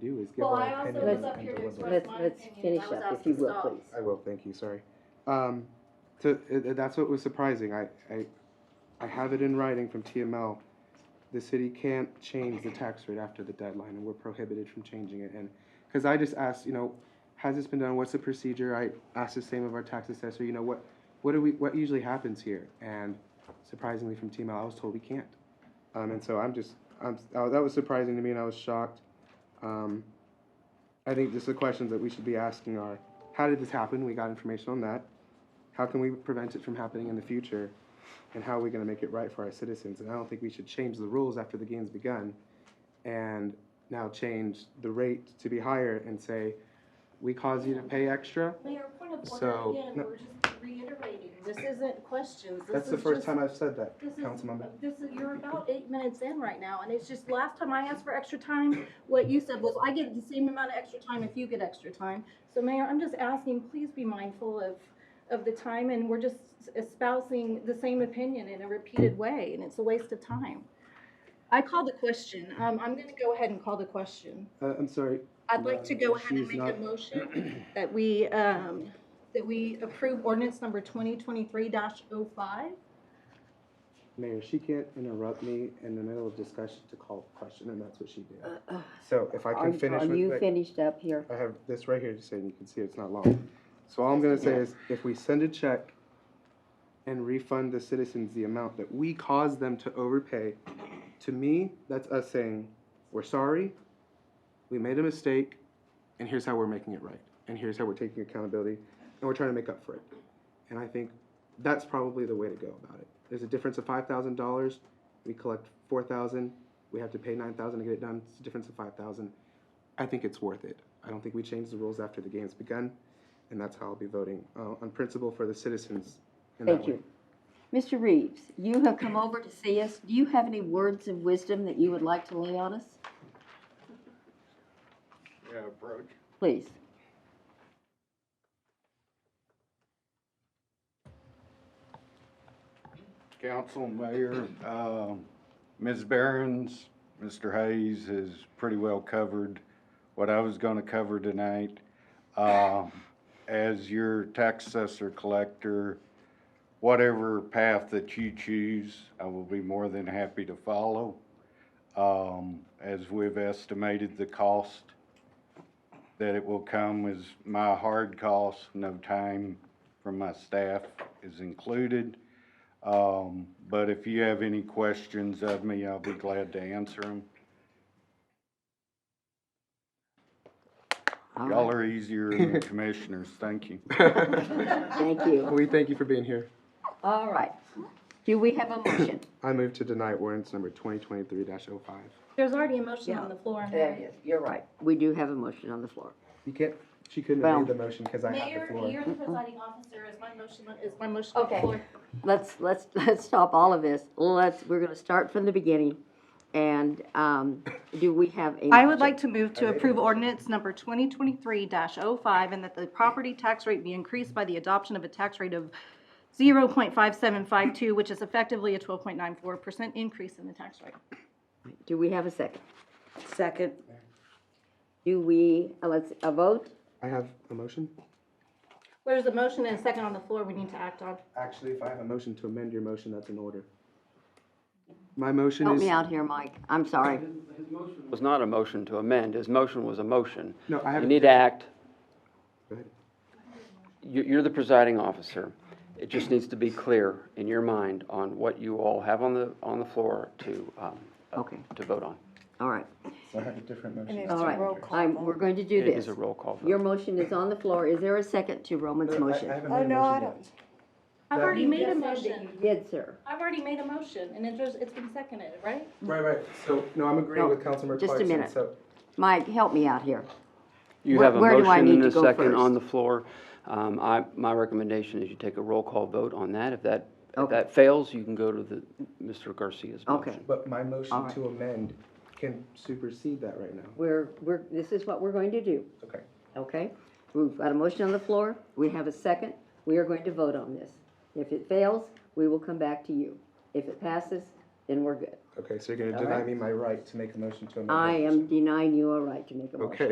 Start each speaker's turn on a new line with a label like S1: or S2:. S1: please give
S2: Well,
S1: her
S2: I also
S1: opinion
S2: was
S1: and-
S2: up
S1: and
S2: here to
S1: deliver.
S2: express
S3: Let's,
S2: my
S3: let's
S2: opinion.
S3: finish
S2: I was
S3: up, if
S2: asking
S3: you will,
S2: Saul.
S3: please.
S1: I will, thank you, sorry. Um, to, it, it- that's what was surprising, I, I, I have it in writing from TML. The city can't change the tax rate after the deadline, and we're prohibited from changing it, and, cause I just asked, you know, has this been done, what's the procedure, I asked the same of our tax assessor, you know, what, what do we, what usually happens here? And surprisingly from TML, I was told we can't. Um, and so I'm just, I'm, uh, that was surprising to me, and I was shocked. Um, I think just the questions that we should be asking are, how did this happen? We got information on that. How can we prevent it from happening in the future? And how are we going to make it right for our citizens? And I don't think we should change the rules after the game's begun and now change the rate to be higher and say, we cause you to pay extra.
S2: Mayor, point of
S1: So,
S2: order again,
S1: no-
S2: we're just reiterating, this isn't questions, this
S1: That's the
S2: is
S1: first
S2: just-
S1: time I've said that,
S2: This is,
S1: Councilmember.
S2: this is, you're about eight minutes in right now, and it's just, last time I asked for extra time, what you said was, I get the same amount of extra time if you get extra time. So Mayor, I'm just asking, please be mindful of, of the time, and we're just espousing the same opinion in a repeated way, and it's a waste of time. I called the question, um, I'm gonna go ahead and call the question.
S1: Uh, I'm sorry.
S2: I'd like to go ahead and
S1: She's
S2: make a
S1: not-
S2: motion that we, um, that we approve ordinance number twenty twenty-three oh 5
S1: Mayor, she can't interrupt me in the middle of discussion to call a question, and that's what she did.
S2: Uh,
S1: So if I
S3: Are-
S1: can finish
S3: Are
S1: with.
S3: you
S1: like-
S3: finished up here?
S1: I have this right here, just so you can see it's not long. So all I'm gonna say is, if we send a check and refund the citizens the amount that we caused them to overpay, to me, that's us saying, we're sorry, we made a mistake, and here's how we're making it right, and here's how we're taking accountability, and we're trying to make up for it. And I think that's probably the way to go about it. There's a difference of five thousand dollars, we collect four thousand, we have to pay nine thousand to get it done, it's a difference of five thousand. I think it's worth it. I don't think we change the rules after the game's begun, and that's how I'll be voting uh, on principle for the citizens. in that
S3: Thank
S1: way.
S3: you. Mr. Reeves, you have come over to see us. Do you have any words of wisdom that you would like to lay on us?
S4: Yeah, approach.
S3: Please.
S4: Council, Mayor, um, Ms. Barron's, Mr. Hayes has pretty well covered what I was gonna cover tonight. Um, As your tax assessor collector, whatever path that you choose, I will be more than happy to follow. Um, As we've estimated the cost that it will come is my hard cost, no time from my staff is included. Um, but if you have any questions of me, I'll be glad to answer them.
S3: All
S4: Y'all
S3: right.
S4: are easier than the commissioners, thank you.
S3: Thank you.
S1: We thank you for being here.
S3: All right. Do we have a motion?
S1: I move to deny ordinance number 2023-05.
S2: There's already a motion on the floor. and-
S3: is. You're right. We do have a motion on the floor.
S1: You can't, she couldn't
S3: Well-
S1: read the motion because I have the
S2: Mayor,
S1: floor.
S2: you're the presiding officer, is my motion, is my motion on the
S3: Okay.
S2: floor?
S3: Let's, let's, let's stop all of this. Let's, we're gonna start from the beginning. And, um, do we have a?
S2: I would like to move to approve ordinance number 2023-05 and that the property tax rate be increased by the adoption of a tax rate of 0.5752, which is effectively a 12.94% increase in the tax rate.
S3: Do we have a second?
S5: Second,
S3: Do we, uh, let's, a vote?
S1: I have a motion?
S2: There's a motion and a second on the floor we need to act on.
S1: Actually, if I have a motion to amend your motion, that's in order. My motion
S3: Help
S1: is,
S3: me out here, Mike. I'm sorry.
S6: was not a motion to amend, his motion was a motion.
S1: No, I
S6: You
S1: haven't-
S6: need to act,
S1: Go ahead.
S6: you, you're the presiding officer. It just needs to be clear in your mind on what you all have on the, on the floor to, um, uh,
S3: Okay.
S6: to vote on.
S3: All right,
S1: So I have a different motion.
S3: all right. I'm, we're going to do
S6: It
S3: this.
S6: is a roll call vote.
S3: Your motion is on the floor. Is there a second to Roman's motion?
S1: Oh, no, I don't.
S2: I've
S1: That-
S2: already
S1: You
S2: made a
S3: Yes, sir, that
S2: motion.
S3: you Did, sir.
S2: I've already made a motion, and it was, it's been seconded, right?
S1: Right, right. So, no, I'm agreeing
S3: No,
S1: with Councilmember Clarkson.
S3: just a minute.
S1: So
S3: Mike, help me out here.
S6: You
S3: Where-
S6: have a
S3: where do I
S6: motion
S3: need
S6: and
S3: to
S6: a
S3: go
S6: second on
S3: first?
S6: the floor. Um, I, my recommendation is you take a roll call vote on that. If that, if
S3: Okay.
S6: that fails, you can go to the, Mr. Garcia's
S3: Okay.
S6: motion.
S1: But my
S3: All
S1: motion
S3: right.
S1: to amend can supersede that right now.
S3: We're, we're, this is what we're going to do,
S1: Okay.
S3: okay? We've got a motion on the floor. We have a second. We are going to vote on this. If it fails, we will come back to you. If it passes, then we're good.
S1: Okay, so you're gonna
S3: All
S1: deny
S3: right.
S1: me my right to make a motion to amend. my
S3: I
S1: motion.
S3: am denying you a right to make a motion.
S1: Okay.